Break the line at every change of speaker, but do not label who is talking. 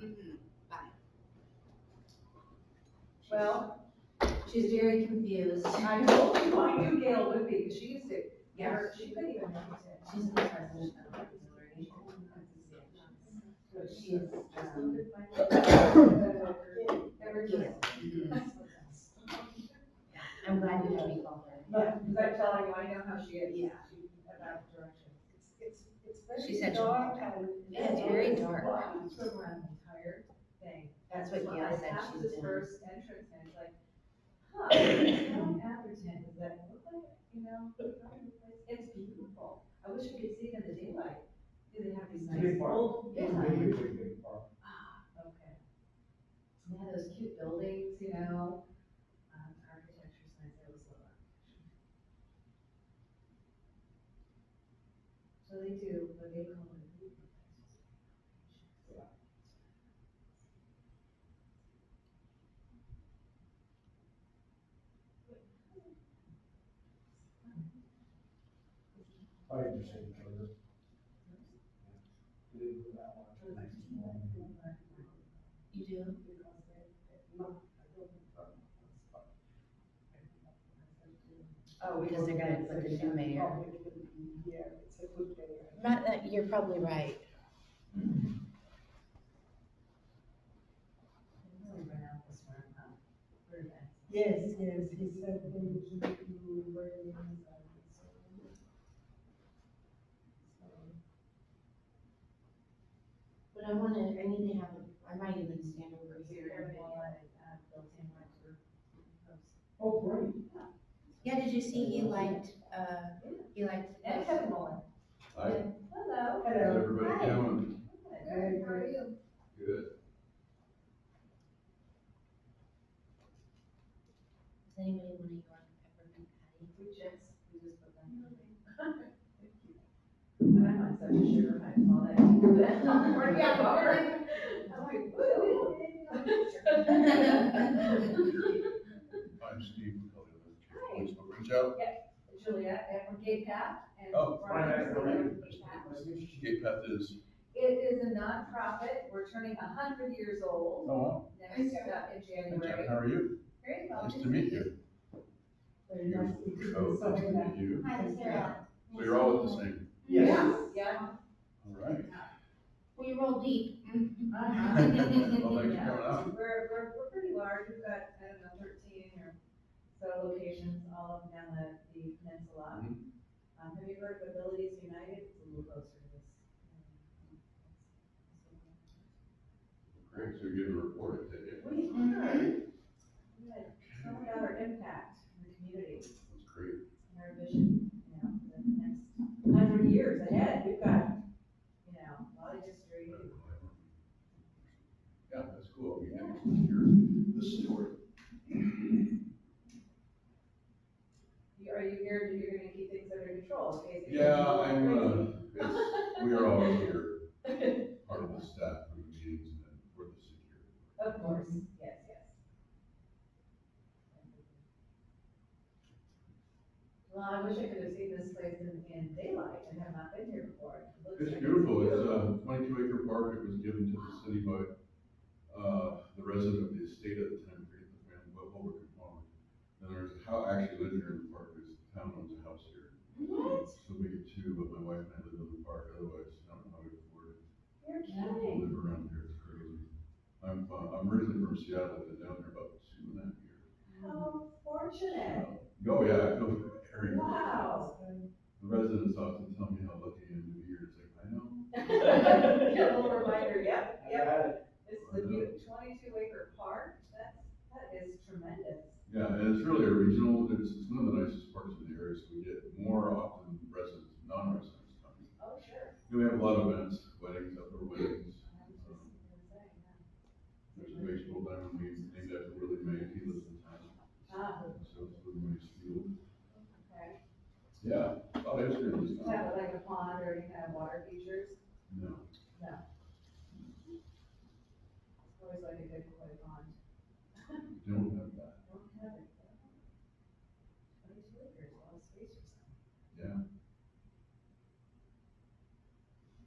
Mhm. Bye.
Well, she's very confused.
I know, I knew Gail would be, 'cause she used to,
Yeah,
she could even notice it.
she's the president of the authority. So she is, um,
uh, Ever
yes. I'm glad you had me call her.
But, but I'm telling you, I know how she is.
Yeah.
She- About direction.
It's, it's
She
very
said she-
dark and.
Yeah, it's very dark.
Well, I'm sort of around the entire thing.
That's what
Well,
Gail
I
said
passed
she's
this
doing.
First entrance and it's like, huh, town Atherton, does that look like, you know, it's beautiful. I wish we could see it in the daylight. Do they have these nice
Big park.
old?
It's a
Yeah.
really big, big park.
Ah, okay. Yeah, those cute buildings, you know, um, architecture's nice, I always love that. So they do, what they call it.
I understand. I was- They didn't do that one. Nice and long.
You do?
Oh, we
Because they're gonna put the new mayor.
Yeah, it's a good mayor.
Not that, you're probably right.
Really run out this one, um, huh? Very bad.
Yes, yes, he said they would keep you very inside.
But I wanna, I need to have, a- I might even stand over here.
uh,
Oh, great.
Yeah, did you see he liked, uh, he liked.
And Kevin Mullen.
Hi, how's
Hello.
Hello.
everybody doing?
Good, how are you?
Good.
Does anybody wanna go on peppermint patty?
We just, we just put them. And I'm on such a sugar high, all that. We're not bored. I'm like, woo.
I'm Steve McCullough with the Police Department. Joe?
Juliet, and we're gay Pat, and
Oh,
Brian is the
right.
leader of Gay Pat.
Gay Path is,
It is a nonprofit, we're turning a hundred years
oh,
old
wow.
next, uh, in
Hi, Jack,
January.
how are you?
Very well.
Nice to meet you.
Very nice to
You,
do
Coach, nice to
something like
meet you.
Hi,
this,
Sarah.
So you're all at the same,
Yeah, yeah.
all right.
We roll deep.
Uh-huh.
Well, thanks for coming out.
We're, we're, we're pretty large, we've got, I don't know, thirteen or so locations all up and down the, the peninsula.
Mhm.
Um, have you heard of Abilities United? It's a little closer to this.
Great, so you're getting reported today.
We are, we had talked about our impact in the community
That's great.
and our vision, you know, for the next hundred years ahead. We've got, you know, a lot of
uh,
history.
Yeah, that's cool. You have to hear the story.
You- Are you here, to- you're gonna keep things under control, basically?
Yeah, I'm, uh, it's, we are all here, part of the staff, for the meetings, and then for the security.
Of course, yes, yes. Well, I wish I could have seen this place in, in daylight and have not been here before. It looks
It's
like
beautiful, it's uh, a twenty-two acre park, it was given to the city by, uh, the resident of the estate at the time, I forget the family, but Wilbur Conformer. And there's a house, I actually lived here in the park, because the town owns a house here. So we get two, but my wife and I live in the park, otherwise, I don't know how we afford it,
You're
to
kidding.
live around here, it's crazy. I'm, uh, I'm originally from Seattle, been down here about two and a half years.
How fortunate.
Uh, Oh, yeah, I feel very,
Wow.
the residents often tell me how lucky I am to be here, it's like, I know,
Yeah, little reminder, yep,
I
yep.
had
This is a beaut- twenty-two acre park. That's, that is tremendous.
Yeah, and it's really a regional, it's, it's one of the nicest parts of the area, so we get more often residents, non-residents coming.
Oh, sure.
And we have a lot of events, weddings, upper weddings,
I was just gonna say, yeah.
there's a baseball diamond, we named after Willie May, he lives in town.
Ah,
So it's Willie May's field.
okay.
Yeah, oh, that's really
Does it
nice.
have like a pond or any kind of water features?
No,
Always like a good koi pond.
don't have